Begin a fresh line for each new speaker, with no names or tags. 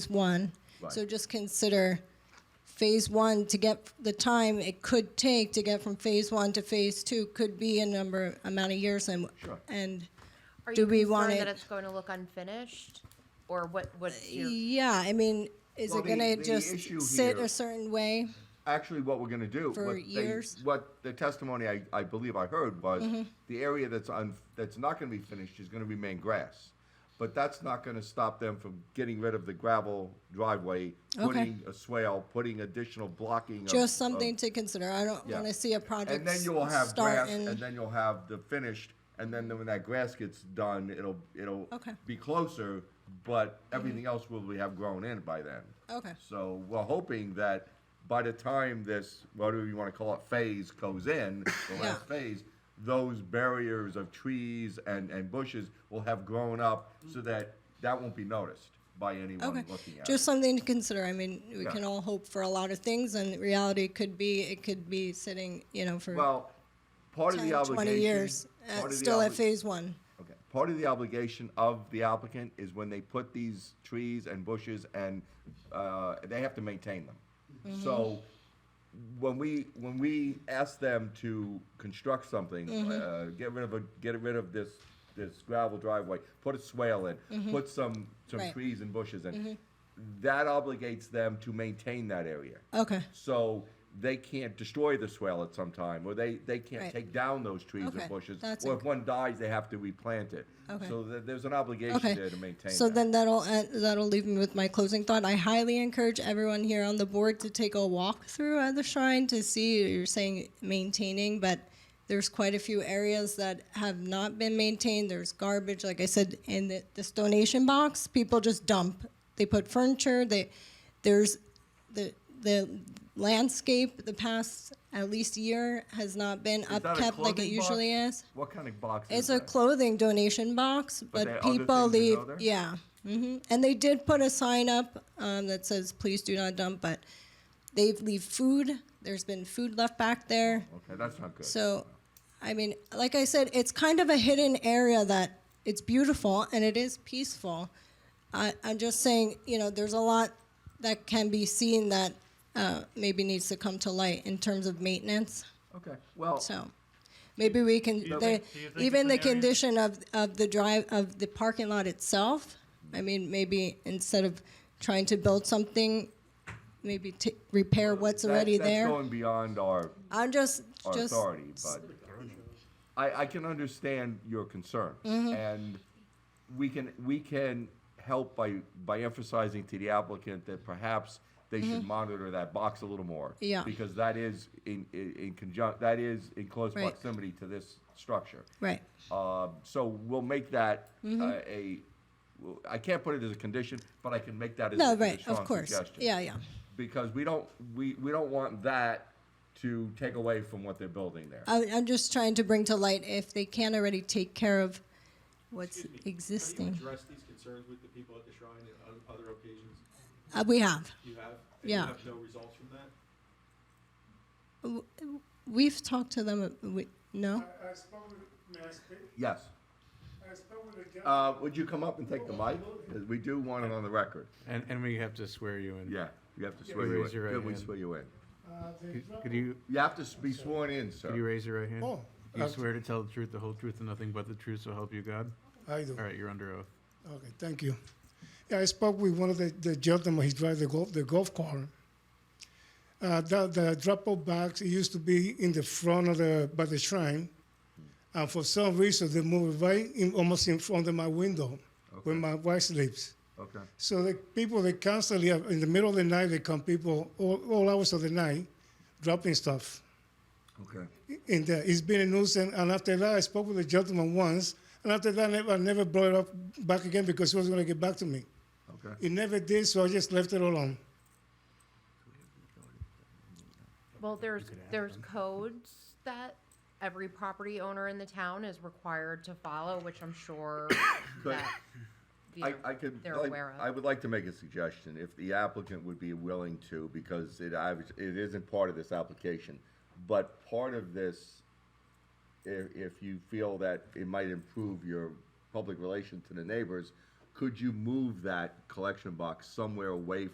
phase one. So just consider phase one to get the time it could take to get from phase one to phase two could be a number, amount of years and, and
Are
do
you
we want
concerned
it?
that it's going to look unfinished? Or what, what's
Uh,
your,
Yeah, I mean, is
Well,
it
the-
gonna
the issue
just sit
here-
a certain way?
actually what we're gonna do.
For
what they-
years? Mm-hmm.
What the testimony I, I believe I heard was, the area that's on, that's not gonna be finished is gonna remain grass. But that's not gonna stop them from getting rid of the gravel driveway, putting a swale, putting additional blocking of.
Just
of-
something to consider. I don't
yeah.
wanna see a project
And then you will have grass,
start
and
and,
then you'll have the finished, and then when that grass gets done, it'll, it'll
Okay. Mm-hmm.
be closer, but everything else will be- have grown in by then.
okay,
So we're hoping that by the time this, whatever you want to call it, phase goes in, the last phase, those barriers of trees and, and bushes will have grown up so that that won't be noticed by
Mm-hmm. okay.
anyone looking at
Just
it.
something to consider. I mean, we
Yeah.
can all hope for a lot of things and reality could be, it could be sitting, you know, for
Well, part of the
10, 20
obligation.
years, uh,
part of the
still at
obli-
phase one.
Okay. Part of the obligation of the applicant is when they put these trees and bushes and, uh, they have to maintain them. So when we, when we ask them to construct something, uh, get rid of a, get rid of this, this gravel driveway, put a swale in, put some, some
Right.
trees and bushes in, that obligates them to maintain that area.
Okay.
So they can't destroy the swale at some time, or they, they
Right.
can't take down those trees or
Okay,
bushes.
that's
Or
inc-
if one dies, they have to replant it.
Okay.
So th- there's an obligation
Okay.
there to maintain
So
that.
then that'll, en- that'll leave me with my closing thought. I highly encourage everyone here on the board to take a walk through at the shrine to see, you're saying maintaining, but there's quite a few areas that have not been maintained. There's garbage, like I said, in the, this donation box, people just dump. They put furniture, they, there's, the, the landscape, the past at least year has not been
Is that a
upkept like it
clothing box?
usually is.
What kind of box is
It's a
that?
clothing donation box,
But there
but
are other
people
things that
leave,
go there?
yeah. hmm And they did put a sign up, um, that says, please do not dump, but they leave food. There's been food left back there.
Okay, that's not good.
So, I mean, like I said, it's kind of a hidden area that it's beautiful and it is peaceful. I, I'm just saying, you know, there's a lot that can be seen that, uh, maybe needs to come to light in terms of maintenance.
Okay, well,
So maybe we can,
you
the-
think- do you think
even
it's
the
an area-
condition of, of the drive, of the parking lot itself, I mean, maybe instead of trying to build something, maybe t- repair what's
that-
already
That's
there.
going beyond our,
I'm just,
our
just,
authority, but I, I can understand your concern.
Mm-hmm.
And we can, we can help by, by emphasizing to the applicant that perhaps they should monitor that box a little more.
Mm-hmm. Yeah.
Because that is in, in, in conjunct, that is in close
Right.
proximity to this structure.
right,
Uh, so we'll make that
Mm-hmm.
uh, a, well, I can't put it as a condition, but I can make that as
no,
a- as a
right, of
strong
course,
suggestion.
yeah, yeah,
Because we don't, we, we don't want that to take away from what they're building there.
I, I'm just trying to bring to light if they can already take care of what's
Excuse me, Have
existing.
you addressed these concerns with the people at the shrine and on other occasions?
Uh, we have,
You have?
Yeah.
And you have no results from that?
we've talked to them, uh, we, no?
I, I spoke with, may I speak?
Yes.
I spoke with a gentleman.
Uh, would you come up and take the mic? 'Cause we do want it on the record.
And, and we have to swear you in.
Yeah, you have to
Yeah,
swear you in.
raise your right
Good, we
hand.
swear you in.
Uh, they
Could-
dropped-
Could you,
You have to s- be sworn in, sir.
could you raise your right hand?
Oh,
Do you
uh,
swear to tell the truth, the whole truth, and nothing but the truth, so help you God?
I do.
All right, you're under oath.
Okay, thank you. Yeah, I spoke with one of the, the gentlemen. He drives the golf the golf cart. Uh, the the drop off box it used to be in the front of the by the shrine, and for some reason they moved it right in, almost in front of my window where my wife sleeps.
Okay.
So the people they constantly have, in the middle of the night they come people all, all hours of the night, dropping stuff.
Okay.
in there. It's been a nuisance. And after that, I spoke with the gentleman once. And after that, I never, I never brought it up back again because he was going to get back to me.
Okay.
He never did, so I just left it alone.
well, there's, there's codes that every property owner in the town is required to follow, which I'm sure that, you
I,
know,
I could,
they're
like-
aware
I
of.
would like to make a suggestion, if the applicant would be willing to, because it, I, was- it isn't part of this application, but part of this, if, if you feel that it might improve your public relation to the neighbors, could you move that collection box somewhere away